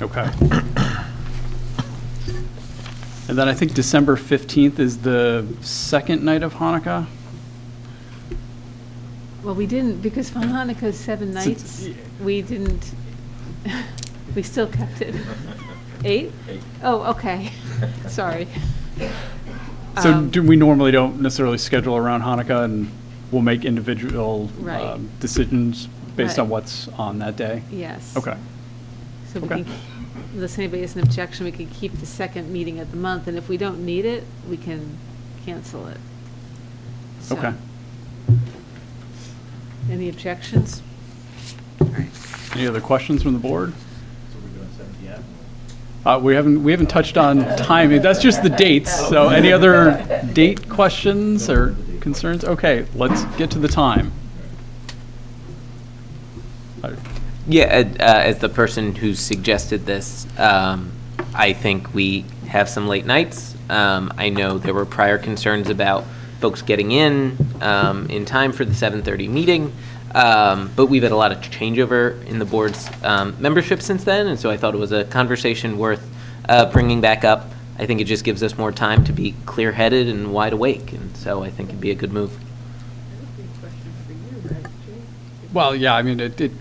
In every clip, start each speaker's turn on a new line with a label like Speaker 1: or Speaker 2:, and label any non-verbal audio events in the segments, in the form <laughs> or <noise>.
Speaker 1: Okay. <coughs> And then I think December 15th is the second night of Hanukkah?
Speaker 2: Well, we didn't, because for Hanukkah's seven
Speaker 1: It's-
Speaker 2: nights,
Speaker 1: yeah.
Speaker 2: we didn't, <laughs> we still kept it. Eight?
Speaker 3: Eight.
Speaker 2: Oh, okay, <laughs> sorry.
Speaker 1: So
Speaker 2: Um,
Speaker 1: do, we normally don't necessarily schedule around Hanukkah, and we'll make individual
Speaker 2: Right.
Speaker 1: um, decisions based
Speaker 2: Right.
Speaker 1: on what's on that day?
Speaker 2: Yes.
Speaker 1: Okay.
Speaker 2: So we
Speaker 1: okay.
Speaker 2: can, unless anybody has an objection, we can keep the second meeting of the month, and if we don't need it, we can cancel it. So-
Speaker 1: Okay.
Speaker 2: Any objections? All right.
Speaker 1: Any other questions from the board?
Speaker 3: So we're doing seven PM?
Speaker 1: Uh, We haven't, we haven't touched on timing, that's just the dates, so any other date questions or concerns? Okay, let's get to the time. Uh,
Speaker 4: Yeah, Ed, uh, as the person who suggested this, um, I think we have some late nights. Um, I know there were prior concerns about folks getting in um, in time for the 7:30 meeting, um, but we've had a lot of changeover in the board's um, membership since then, and so I thought it was a conversation worth uh, bringing back up. I think it just gives us more time to be clear-headed and wide awake, and so I think it'd be a good move.
Speaker 1: Well, yeah, I mean, it, it,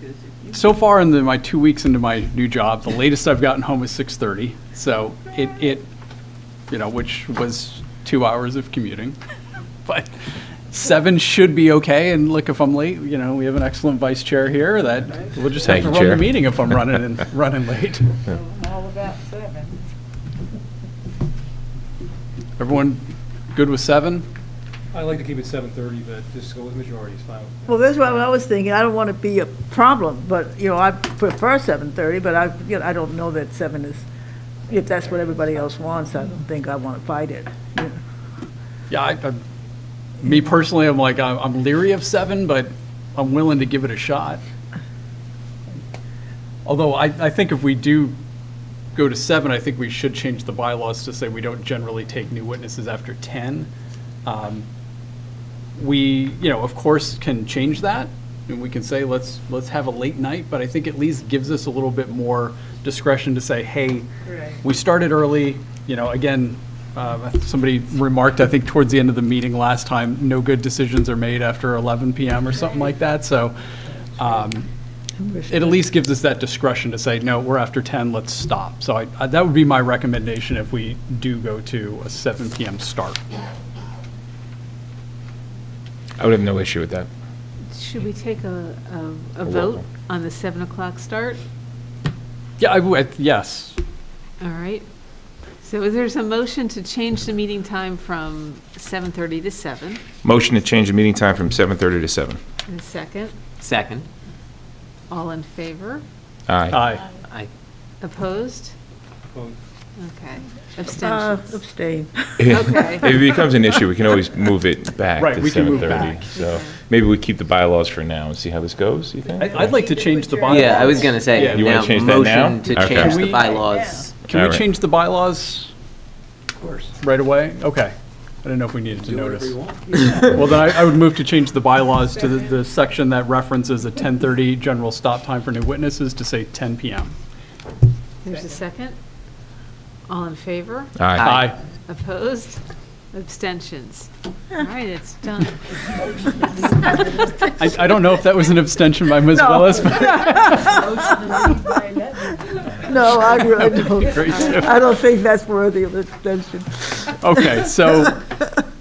Speaker 1: so far in the, my two weeks into my new job, the latest I've gotten home is 6:30, so it, it, you know, which was two hours of commuting. <laughs> But seven should be okay, and look, if I'm late, you know, we have an excellent vice chair here that we'll just have to
Speaker 5: Thank you,
Speaker 1: run the
Speaker 5: Chair.
Speaker 1: meeting if I'm running and, running
Speaker 5: <laughs>
Speaker 1: late.
Speaker 6: All about seven.
Speaker 1: Everyone good with seven?
Speaker 7: I like to keep it seven thirty, but just go with majority is fine.
Speaker 6: Well, that's what I was thinking, I don't want to be a problem, but, you know, I prefer seven thirty, but I, you know, I don't know that seven is, if that's what everybody else wants, I don't think I want to fight it. you know.
Speaker 1: Yeah, I, I, me personally, I'm like, I'm- I'm leery of seven, but I'm willing to give it a shot. Although I, I think if we do go to seven, I think we should change the bylaws to say we don't generally take new witnesses after ten. Um, We, you know, of course, can change that, and we can say, let's, let's have a late night, but I think at least gives us a little bit more discretion to say, hey,
Speaker 6: Right.
Speaker 1: we started early, you know, again, uh, somebody remarked, I think, towards the end of the meeting last time, no good decisions are made after 11 PM or something like that, so um, it at least gives us that discretion to say, no, we're after 10, let's stop. So I- I- that would be my recommendation if we do go to a 7 PM start.
Speaker 5: I would have no issue with that.
Speaker 2: Should we take a, a- a
Speaker 5: A roll
Speaker 2: vote
Speaker 5: call.
Speaker 2: on the 7 o'clock start?
Speaker 1: Yeah, I would, yes.
Speaker 2: All right. So is there's a motion to change the meeting time from 7:30 to 7,
Speaker 5: Motion to change the meeting time from 7:30 to 7.
Speaker 2: and a second.
Speaker 4: Second,
Speaker 2: All in favor?
Speaker 5: Aye. <laughs>
Speaker 1: Aye.
Speaker 4: I,
Speaker 2: Opposed?
Speaker 7: Well,
Speaker 2: Okay.
Speaker 6: Uh,
Speaker 2: Abstentions?
Speaker 6: Abstain.
Speaker 2: Okay.
Speaker 5: If it becomes an issue, we can always move it back
Speaker 1: Right,
Speaker 5: to
Speaker 1: we can move back.
Speaker 5: 7:30. So
Speaker 2: Okay.
Speaker 5: maybe we keep the bylaws for now and see how this goes, you
Speaker 1: I-
Speaker 5: think?
Speaker 1: I'd like to change the bylaws.
Speaker 4: yeah, I was gonna
Speaker 1: Yeah.
Speaker 4: say,
Speaker 5: You wanna
Speaker 4: now,
Speaker 5: change that now?
Speaker 4: motion to
Speaker 5: Okay.
Speaker 4: change
Speaker 1: Can
Speaker 4: the
Speaker 1: we-
Speaker 4: bylaws.
Speaker 1: Can we
Speaker 5: Alright.
Speaker 1: change the bylaws? Of course. Right away? Okay. I didn't know if we needed to
Speaker 7: Do whatever
Speaker 1: notice.
Speaker 7: you
Speaker 1: <laughs>
Speaker 7: want.
Speaker 1: Well, then I, I would move to change the bylaws to the, the section that references a 10:30 general stop time for new witnesses to say 10 PM.
Speaker 2: There's a second. All in favor?
Speaker 5: Aye.
Speaker 4: Aye.
Speaker 2: Opposed? Abstentions? All right, it's done.
Speaker 1: I, I don't know if that was an abstention by
Speaker 4: <laughs>
Speaker 1: Ms.
Speaker 6: No.
Speaker 1: Willis. but-
Speaker 6: No, I really don't,
Speaker 1: Great.
Speaker 6: I don't think that's worthy of attention.
Speaker 1: Okay, so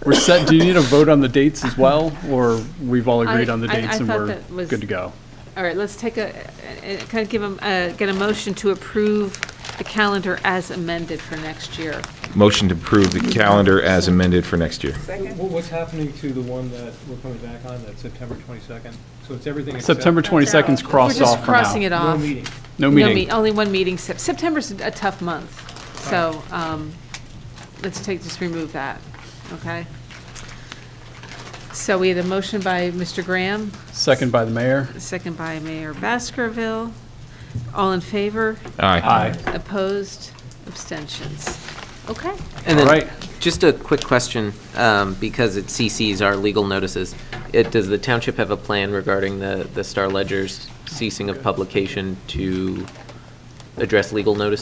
Speaker 1: we're set, do you need a vote on the dates as well? Or we've all agreed
Speaker 2: I-
Speaker 1: on the
Speaker 2: I- I
Speaker 1: dates and
Speaker 2: thought
Speaker 1: we're
Speaker 2: that was-
Speaker 1: good to go?
Speaker 2: All right, let's take a, a- a- kind of give them, get a motion to approve the calendar as amended for next year.
Speaker 5: Motion to approve the calendar as amended for next year.
Speaker 7: wh- What's happening to the one that we're coming back on, that's September twenty-second? So it's everything except.
Speaker 1: September 22nd's crossed off for
Speaker 2: We're just crossing
Speaker 1: now.
Speaker 2: it
Speaker 7: No
Speaker 2: off.
Speaker 7: meeting.
Speaker 1: No
Speaker 2: No
Speaker 1: meeting.
Speaker 2: me- Only one meeting, Sep- September's a tough month, so um, let's take, just remove that, okay? So we had a motion by Mr. Graham,
Speaker 1: Second by the mayor.
Speaker 2: a second by Mayor Baskerville. All in favor?
Speaker 5: Aye.
Speaker 2: Opposed? Abstentions? Okay.
Speaker 4: And
Speaker 1: All right.
Speaker 4: then, just a quick question, um, because it CCs our legal notices. It, does the township have a plan regarding the, the Star Ledger's ceasing of publication to address legal notice